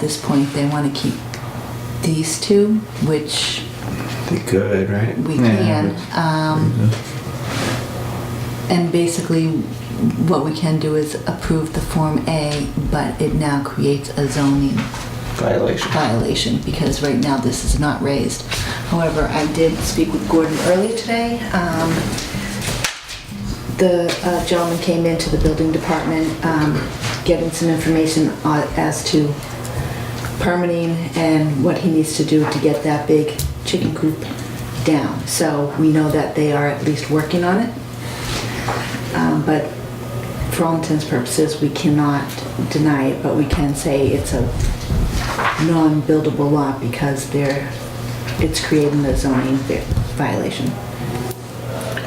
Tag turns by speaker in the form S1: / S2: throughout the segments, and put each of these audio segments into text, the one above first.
S1: this point, they want to keep these two, which
S2: They could, right?
S1: we
S3: Yeah,
S1: can. Um, and basically, what we can do is approve the Form A, but it now creates a zoning
S2: Violation.
S1: violation because right now this is not raised. However, I did speak with Gordon early today. Um, The uh, gentleman came into the building department um, getting some information on- as to permitting and what he needs to do to get that big chicken coop down. So we know that they are at least working on it. Um, But for all intents and purposes, we cannot deny it, but we can say it's a non-buildable lot because they're, it's creating a zoning vi- violation.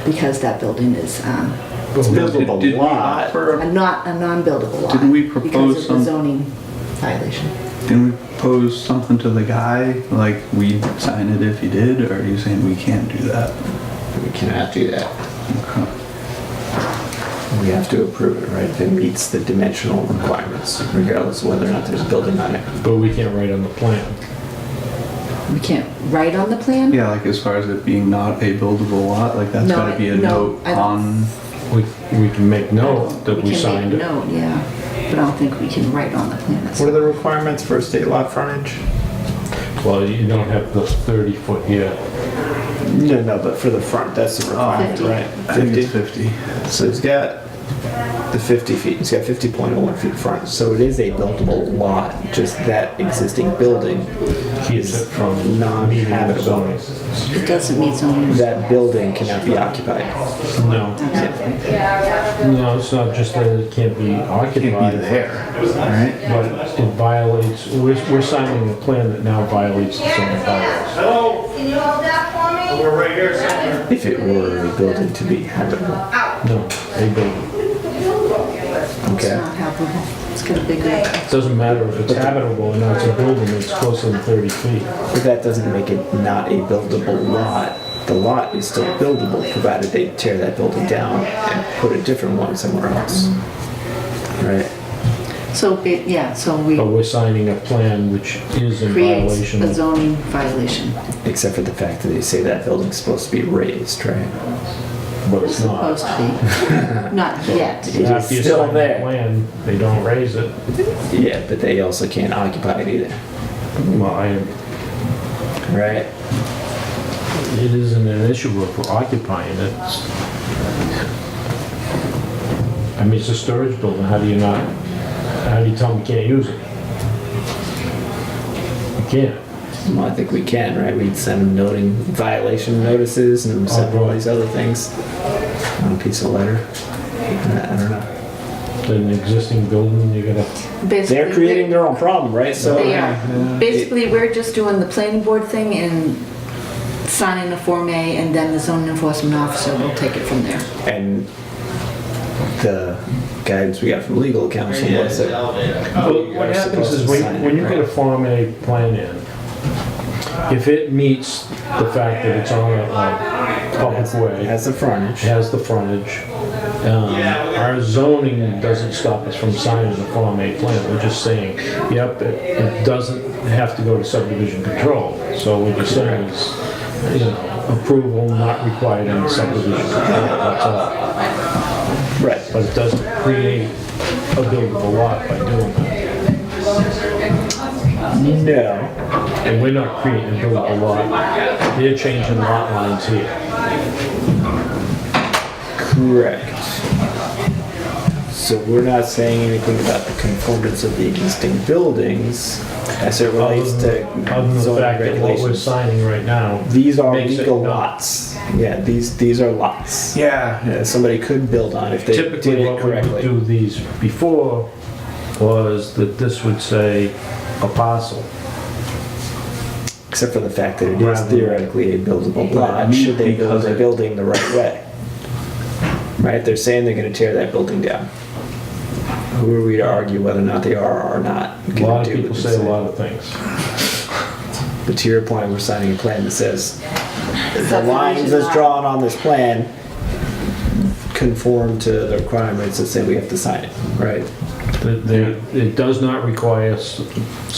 S1: Because that building is um,
S2: It's buildable
S3: Did- did we
S2: lot.
S3: offer-
S1: a not, a non-buildable lot.
S3: Didn't we propose
S1: Because of the
S3: some-
S1: zoning violation.
S3: Didn't we propose something to the guy, like we'd sign it if he did, or are you saying we can't do that?
S2: We cannot do that.
S3: Okay.
S2: We have to approve it, right? If it meets the dimensional requirements, regardless of whether or not there's a building on it.
S4: But we can't write on the plan.
S1: We can't write on the plan?
S3: Yeah, like as far as it being not a buildable lot, like that's
S1: No,
S3: gotta be a
S1: I- no,
S3: note
S1: I-
S3: on,
S4: We, we can make note that we
S1: can make
S4: signed it.
S1: note, yeah, but I don't think we can write on the plan.
S2: What are the requirements for state lot frontage?
S4: Well, you don't have the 30 foot here.
S2: No, no, but for the front, that's the requirement,
S1: 50.
S2: right?
S3: I think it's
S2: Oh, Fifty.
S3: fifty.
S2: So it's got the fifty feet, it's got fifty point oh one feet front, so it is a buildable lot, just that existing building
S4: He's
S2: is
S4: from meeting
S2: non-habitable.
S4: zoning.
S1: It doesn't meet zoning.
S2: That building cannot be occupied.
S4: No, no, it's not just that it can't be
S3: Can't be
S4: occupied,
S3: there, right?
S4: but it violates, we're, we're signing a plan that now violates the zoning bylaws.
S5: Hello? Can you hold that for me? We're right here somewhere.
S2: If it were a building to be habitable.
S4: No, they don't.
S1: It's
S2: Okay.
S1: not habitable. It's got a big, roof.
S4: It doesn't matter if it's habitable or not, it's a building that's closer than 30 feet.
S2: But that doesn't make it not a buildable lot. The lot is still buildable, provided they tear that building down and put a different one somewhere else. Right?
S1: so, it- yeah, so we
S4: But we're signing a plan which is in
S1: create
S4: violation
S1: a
S4: of
S1: zoning violation.
S2: Except for the fact that they say that building's supposed to be raised, right?
S4: but
S1: It's
S4: it's not.
S1: supposed to be. Not yet.
S2: It is
S4: After you
S2: still
S4: sign that
S2: there.
S4: plan, they don't raise it.
S2: Yeah, but they also can't occupy it either,
S4: Well, I,
S2: right?
S4: It isn't an issue of occupying it. I mean, it's a storage building, how do you not, how do you tell them you can't use it? You can't.
S2: Well, I think we can, right? We'd send them noting violation notices and send all these other things on a piece of letter. I I don't know.
S4: It's an existing building, you're gonna,
S1: Basically,
S2: They're creating their own problem, right? So.
S1: They are. Basically, we're just doing the planning board thing and signing the Form A, and then the zoning enforcement officer will take it from there.
S2: And the guidance we got from legal counsel was that
S4: Well, what happens is when, when you get a Form A plan in, if it meets the fact that it's on a, a public
S2: it
S4: way,
S2: has the frontage.
S4: has the frontage, um, our zoning doesn't stop us from signing the Form A plan, we're just saying, yep, it, it doesn't have to go to subdivision control, so what you're saying is, you know, approval not required in subdivision control, that's all.
S2: Right.
S4: But it doesn't create a buildable lot by doing that.
S2: No.
S4: And we're not creating a buildable lot. They're changing lot lines here.
S2: Correct. So we're not saying anything about the conformance of the existing buildings as it relates to
S4: Other than the
S2: zoning
S4: fact that what we're
S2: regulations.
S4: signing right now.
S2: These are
S4: makes it
S2: legal
S4: not-
S2: lots. Yeah, these, these are lots.
S3: Yeah.
S2: Yeah, Somebody could build on if they did
S4: Typically,
S2: it
S4: what we would
S2: correctly.
S4: do these before was that this would say a parcel.
S2: Except for the fact that it is
S4: Rather-
S2: theoretically a buildable lot, should they build
S3: Because
S2: the
S3: it-
S2: building the right way? Right, they're saying they're gonna tear that building down. Who are we to argue whether or not they are or not?
S4: A
S2: gonna
S4: lot of
S2: do what
S4: people
S2: they
S4: say a lot of things.
S2: But to your point, we're signing a plan that says, the
S1: Subdivision
S2: lines that's
S1: lot.
S2: drawn on this plan conform to the requirements that say we have to sign it, right?
S4: That there- It does not require s-